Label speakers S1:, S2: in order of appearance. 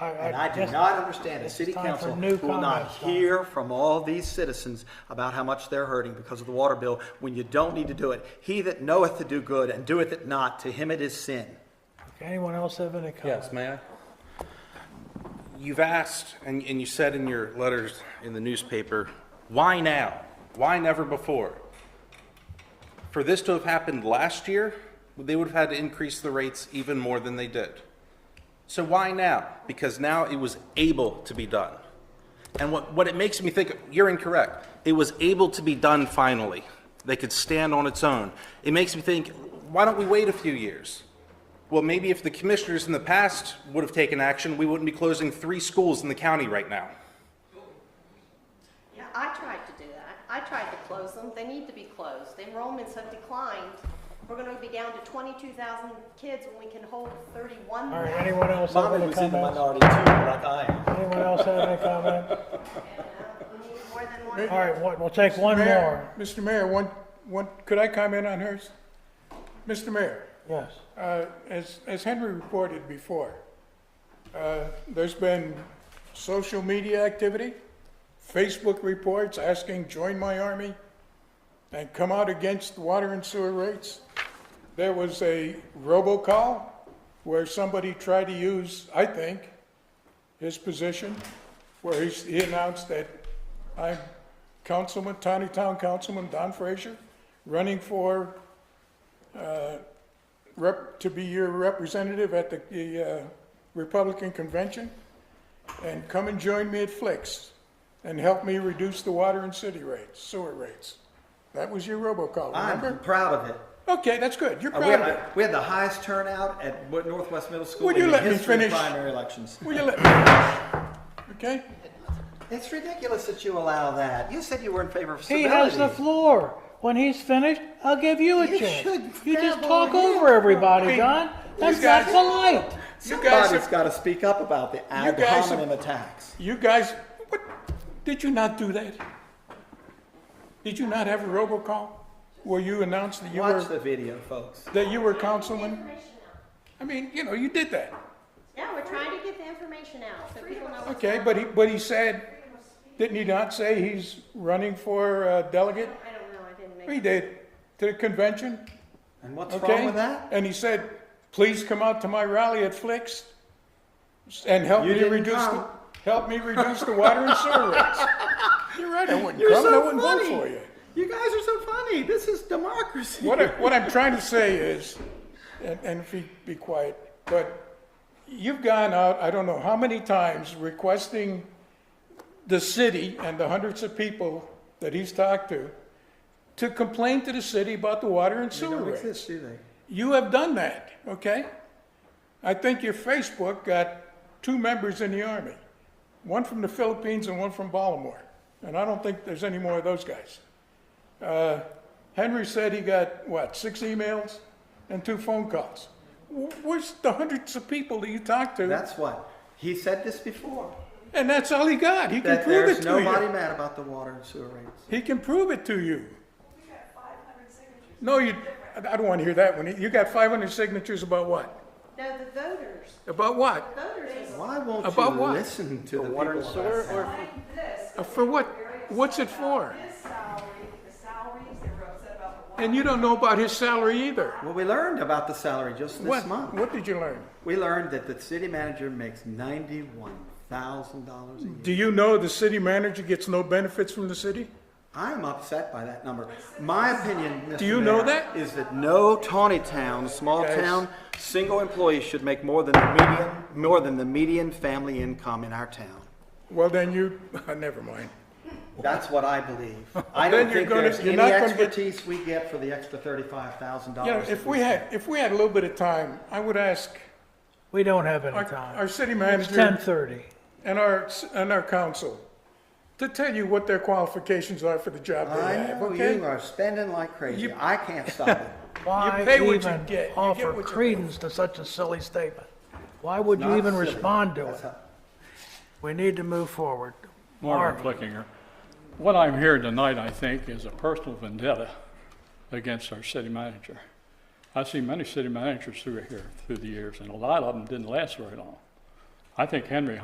S1: I- I
S2: And I do
S1: just-
S2: not understand a
S1: it's
S2: city
S1: time for
S2: council
S1: new
S2: who will not
S1: comments, Tom.
S2: hear from all these citizens about how much they're hurting because of the water bill when you don't need to do it. He that knoweth to do good and doeth it not, to him it is sin.
S1: Anyone else have any comments?
S3: Yes, may I? You've asked, and, and you said in your letters in the newspaper, why now? Why never before? For this to have happened last year, they would have had to increase the rates even more than they did. So why now? Because now it was able to be done. And what, what it makes me think, you're incorrect. It was able to be done finally. They could stand on its own. It makes me think, why don't we wait a few years? Well, maybe if the commissioners in the past would have taken action, we wouldn't be closing three schools in the county right now.
S4: Yeah, I tried to do that. I tried to close them. They need to be closed. Enrollments have declined. We're gonna be down to twenty-two thousand kids when we can hold thirty-one
S1: All right,
S4: thousand.
S1: anyone else have
S2: Bobby
S1: any
S2: was in the
S1: comments?
S2: minority too, like I am.
S1: Anyone else have any comment?
S4: We need more than one.
S1: All right, one- we'll take one more.
S5: Mayor- Mr. Mayor, one, one, could I comment on hers? Mr. Mayor,
S1: Yes,
S5: uh, as, as Henry reported before, uh, there's been social media activity, Facebook reports asking, join my army, and come out against water and sewer rates. There was a robocall where somebody tried to use, I think, his position, where he's, he announced that I'm Councilman, Tawny Town Councilman Don Frazier, running for, uh, rep, to be your representative at the, the, uh, Republican Convention, and come and join me at Flicks, and help me reduce the water and city rates, sewer rates. That was your robocall,
S2: I'm
S5: remember?
S2: proud of it.
S5: Okay, that's good, you're
S2: Uh,
S5: proud
S2: We had,
S5: of it.
S2: the- we had the highest turnout at Wo- Northwest Middle School
S5: Would
S2: in
S5: you
S2: the
S5: let me
S2: history of
S5: finish?
S2: primary elections.
S5: Will you let me finish? Okay?
S2: It's ridiculous that you allow that. You said you were in favor of
S1: he has the
S2: civility.
S1: floor. When he's finished, I'll give you a
S2: You
S1: chance.
S2: should
S1: You just
S2: grab
S1: talk
S2: on him.
S1: over everybody,
S5: Hey,
S1: Don. That's
S5: you
S1: not
S5: guys-
S1: polite.
S5: You guys
S2: Somebody's
S5: have-
S2: gotta speak up about the ad
S5: guys have-
S2: hominem attacks.
S5: You guys, what, did you not do that? Did you not have a robocall where you announced that you
S2: Watch
S5: were,
S2: the video, folks.
S5: that you were councilman?
S4: Information out.
S5: I mean, you know, you did that.
S4: Yeah, we're trying to get the information out so people know what's
S5: Okay,
S4: going
S5: but he, but he said, didn't he not say he's running for uh, delegate?
S4: on. I don't know, I didn't make.
S5: He did, to the convention,
S2: And what's
S5: okay?
S2: wrong with that?
S5: And he said, please come out to my rally at Flicks and help
S2: You
S5: me
S2: didn't
S5: reduce, the
S2: come.
S5: help me reduce the water and sewer rates. You're right, I wouldn't
S2: You're
S5: come, and I
S2: so
S5: wouldn't vote for
S2: funny.
S5: you.
S2: You guys are so funny. This is democracy.
S5: What, I, what I'm trying to say is, and, and if you be quiet, but you've gone out, I don't know how many times, requesting the city and the hundreds of people that he's talked to to complain to the city about the water and
S2: They
S5: sewer
S2: don't
S5: rates.
S2: exist, do they?
S5: You have done that, okay? I think your Facebook got two members in the Army, one from the Philippines and one from Baltimore. And I don't think there's any more of those guys. Uh, Henry said he got, what, six emails and two phone calls? Wh- Where's the hundreds of people that you talked to?
S2: That's what. He said this before,
S5: And that's all he got. He can
S2: that
S5: prove it
S2: there's
S5: to
S2: nobody
S5: you.
S2: mad about the water and sewer rates.
S5: He can prove it to you. No, you, I I don't want to hear that one. You got 500 signatures about what?
S4: No, the voters,
S5: About what?
S4: voters. is-
S2: Why won't
S5: About
S2: you
S5: what?
S2: listen to the
S6: water and
S2: people?
S6: sewer or
S5: Uh, For what, what's it for?
S7: His salary, the salaries, they were upset about the water.
S5: And you don't know about his salary either.
S2: Well, we learned about the salary just this
S5: What,
S2: month.
S5: what did you learn?
S2: We learned that the city manager makes ninety-one thousand dollars a year.
S5: Do you know the city manager gets no benefits from the city?
S2: I'm upset by that number. My opinion, Mr.
S5: Do you know
S2: Mayor,
S5: that?
S2: Is that no tawny town, small
S5: Guys.
S2: town, single employee should make more than the median, more than the median family income in our town.
S5: Well, then you, uh, never mind.
S2: That's what I believe. I
S5: Then
S2: don't
S5: you're
S2: think
S5: gonna-
S2: there's
S5: you're
S2: any
S5: not gonna get-
S2: expertise we get for the extra thirty-five thousand
S5: You know,
S2: dollars.
S5: if we had, if we had a little bit of time, I would ask
S1: We don't have any
S5: our,
S1: time.
S5: our city
S1: It's
S5: manager
S1: 10:30.
S5: and our, s- and our council to tell you what their qualifications are for the job they
S2: I
S5: have,
S2: know you
S5: okay?
S2: are spending like crazy.
S5: You-
S2: I can't stop it.
S1: Why
S5: pay what you
S1: even
S5: get. You get
S1: offer
S5: what you pay.
S1: credence to such a silly statement? Why would you
S2: Not
S1: even
S2: silly.
S1: respond to it?
S2: That's how-
S1: We need to move forward.
S6: Marvin Flickinger. What I'm hearing tonight, I think, is a personal vendetta against our city manager. I've seen many city managers through here through the years, and a lot of them didn't last very long. I think Henry